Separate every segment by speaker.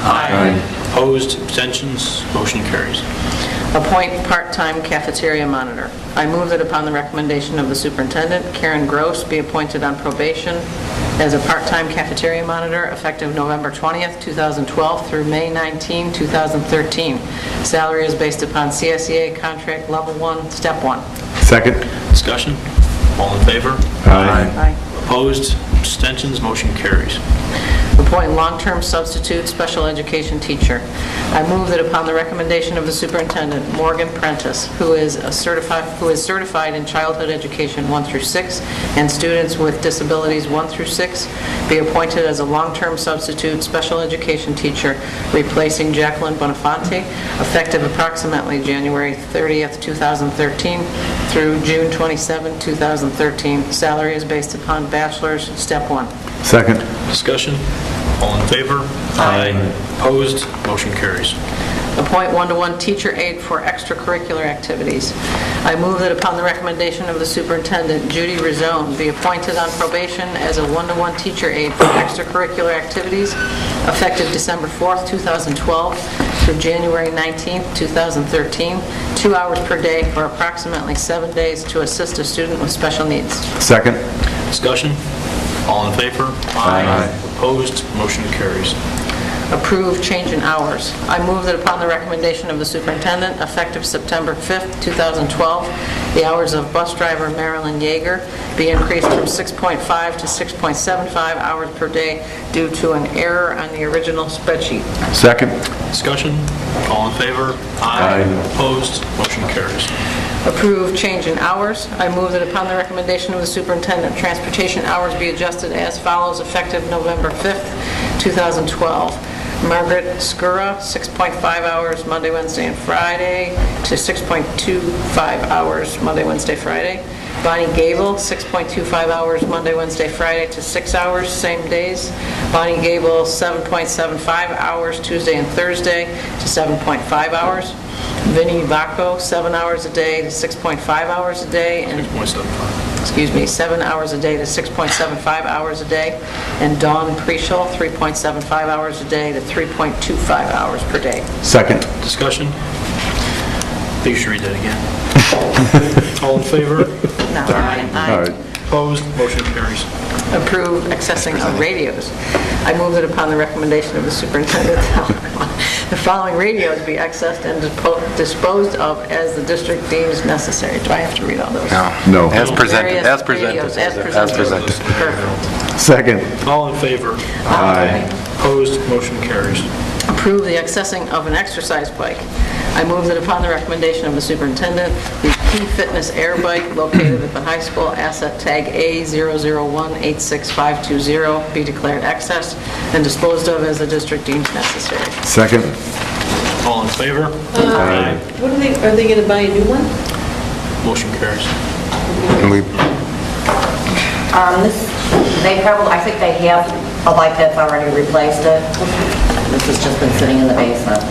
Speaker 1: Aye.
Speaker 2: Opposed, abstentions, motion carries.
Speaker 3: Appoint part-time cafeteria monitor. I move that upon the recommendation of the superintendent, Karen Gross be appointed on probation as a part-time cafeteria monitor effective November 20th, 2012 through May 19, 2013. Salary is based upon CSEA contract level one, step one.
Speaker 4: Second?
Speaker 2: Discussion? All in favor?
Speaker 4: Aye.
Speaker 3: Aye.
Speaker 2: Opposed, abstentions, motion carries.
Speaker 3: Appoint long-term substitute special education teacher. I move that upon the recommendation of the superintendent, Morgan Prentice, who is a certified, who is certified in childhood education 1 through 6, and students with disabilities 1 through 6, be appointed as a long-term substitute special education teacher, replacing Jacqueline Bonifanti, effective approximately January 30th, 2013, through June 27, 2013. Salary is based upon bachelor's, step one.
Speaker 4: Second?
Speaker 2: Discussion? All in favor?
Speaker 3: Aye.
Speaker 2: Opposed, motion carries.
Speaker 3: appoint one-to-one teacher aide for extracurricular activities. I move that upon the recommendation of the superintendent, Judy Rizone be appointed on probation as a one-to-one teacher aide for extracurricular activities effective December 4th, 2012 through January 19th, 2013, two hours per day for approximately seven days to assist a student with special needs.
Speaker 4: Second?
Speaker 2: Discussion? All in favor?
Speaker 4: Aye.
Speaker 2: Opposed, motion carries.
Speaker 3: approve change in hours. I move that upon the recommendation of the superintendent, effective September 5th, 2012, the hours of bus driver Marilyn Yeager be increased from 6.5 to 6.75 hours per day due to an error on the original spreadsheet.
Speaker 4: Second?
Speaker 2: Discussion? All in favor?
Speaker 4: Aye.
Speaker 2: Opposed, motion carries.
Speaker 3: Approve change in hours. I move that upon the recommendation of the superintendent, transportation hours be adjusted as follows effective November 5th, 2012. Margaret Skura, 6.5 hours Monday, Wednesday, and Friday, to 6.25 hours Monday, Wednesday, Friday. Bonnie Gable, 6.25 hours Monday, Wednesday, Friday, to 6 hours, same days. Bonnie Gable, 7.75 hours Tuesday and Thursday, to 7.5 hours. Vinnie Vacco, seven hours a day to 6.5 hours a day, and,
Speaker 2: 6.75.
Speaker 3: excuse me, seven hours a day to 6.75 hours a day, and Dawn Preschall, 3.75 hours a day to 3.25 hours per day.
Speaker 4: Second?
Speaker 2: Discussion? I think you should read that again. All in favor?
Speaker 3: Now,
Speaker 4: All
Speaker 3: I- I-
Speaker 4: right.
Speaker 2: Opposed, motion carries.
Speaker 3: approve accessing of radios. I move that upon the recommendation of the superintendent, the following radios be accessed and dispo- disposed of as the district deems necessary. Do I have to read all those?
Speaker 4: No.
Speaker 5: As presented,
Speaker 3: Various
Speaker 5: as presented.
Speaker 3: radios, as
Speaker 5: As
Speaker 3: presented.
Speaker 5: presented.
Speaker 3: Perfect.
Speaker 4: Second?
Speaker 2: All in favor?
Speaker 4: Aye.
Speaker 2: Opposed, motion carries.
Speaker 3: approve the accessing of an exercise bike. I move that upon the recommendation of the superintendent, the Key Fitness Air Bike located at the high school, asset tag A00186520, be declared excess and disposed of as the district deems necessary.
Speaker 4: Second?
Speaker 2: All in favor?
Speaker 4: Aye.
Speaker 6: What are they, are they gonna buy a new one?
Speaker 2: Motion carries.
Speaker 5: And we,
Speaker 7: Um, this, they probably, I think they have a light that's already replaced it. This has just been sitting in the basement.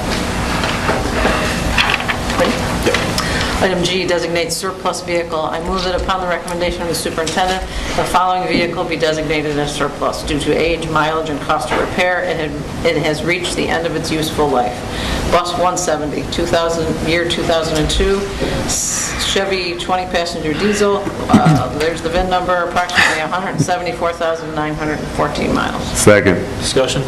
Speaker 3: Item G designates surplus vehicle. I move that upon the recommendation of the superintendent, the following vehicle be designated as surplus due to age, mileage, and cost of repair, and it- it has reached the end of its useful life. Bus 170, 2000, year 2002, s- Chevy 20-passenger diesel, uh, there's the VIN number, approximately 174,914 miles.
Speaker 4: Second?
Speaker 2: Discussion?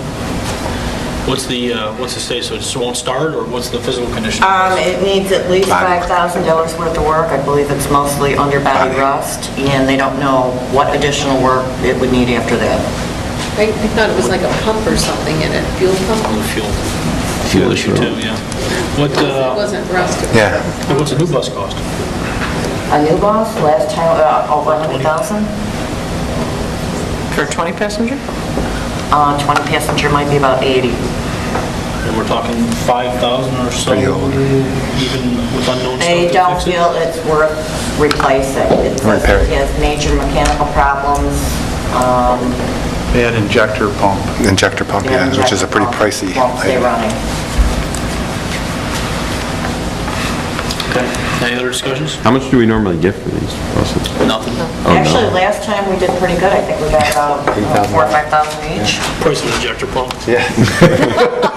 Speaker 2: What's the, uh, what's the state, so it just won't start, or what's the physical condition?
Speaker 7: Um, it needs at least $5,000 worth of work. I believe it's mostly underbody rust, and they don't know what additional work it would need after that.
Speaker 6: I I thought it was like a pump or something in it, fuel
Speaker 2: On
Speaker 6: pump.
Speaker 2: the fuel, fuel issue too, yeah. What,
Speaker 6: It
Speaker 2: uh,
Speaker 6: wasn't rusted.
Speaker 5: yeah,
Speaker 2: what's a new bus cost?
Speaker 7: A new boss, last time, uh, over 100,000?
Speaker 3: For a 20-passenger?
Speaker 7: Uh, 20 passenger might be about 80.
Speaker 2: And we're talking 5,000 or so,
Speaker 5: Pretty old.
Speaker 2: even with unknown stuff
Speaker 7: They
Speaker 2: to
Speaker 7: don't
Speaker 2: fix it?
Speaker 7: feel it's worth replacing. It says
Speaker 5: Repair it.
Speaker 7: it has major mechanical problems, um,
Speaker 8: They had injector pump.
Speaker 5: injector pump, yeah, which is a pretty pricey.
Speaker 7: Won't stay
Speaker 5: item.
Speaker 7: running.
Speaker 2: Okay. Any other discussions?
Speaker 9: How much do we normally get for these buses?
Speaker 2: Nothing.
Speaker 9: Oh, no.
Speaker 7: Actually, last time we did pretty good. I think we got about uh, four or 5,000 each.
Speaker 2: Price of the injector pump?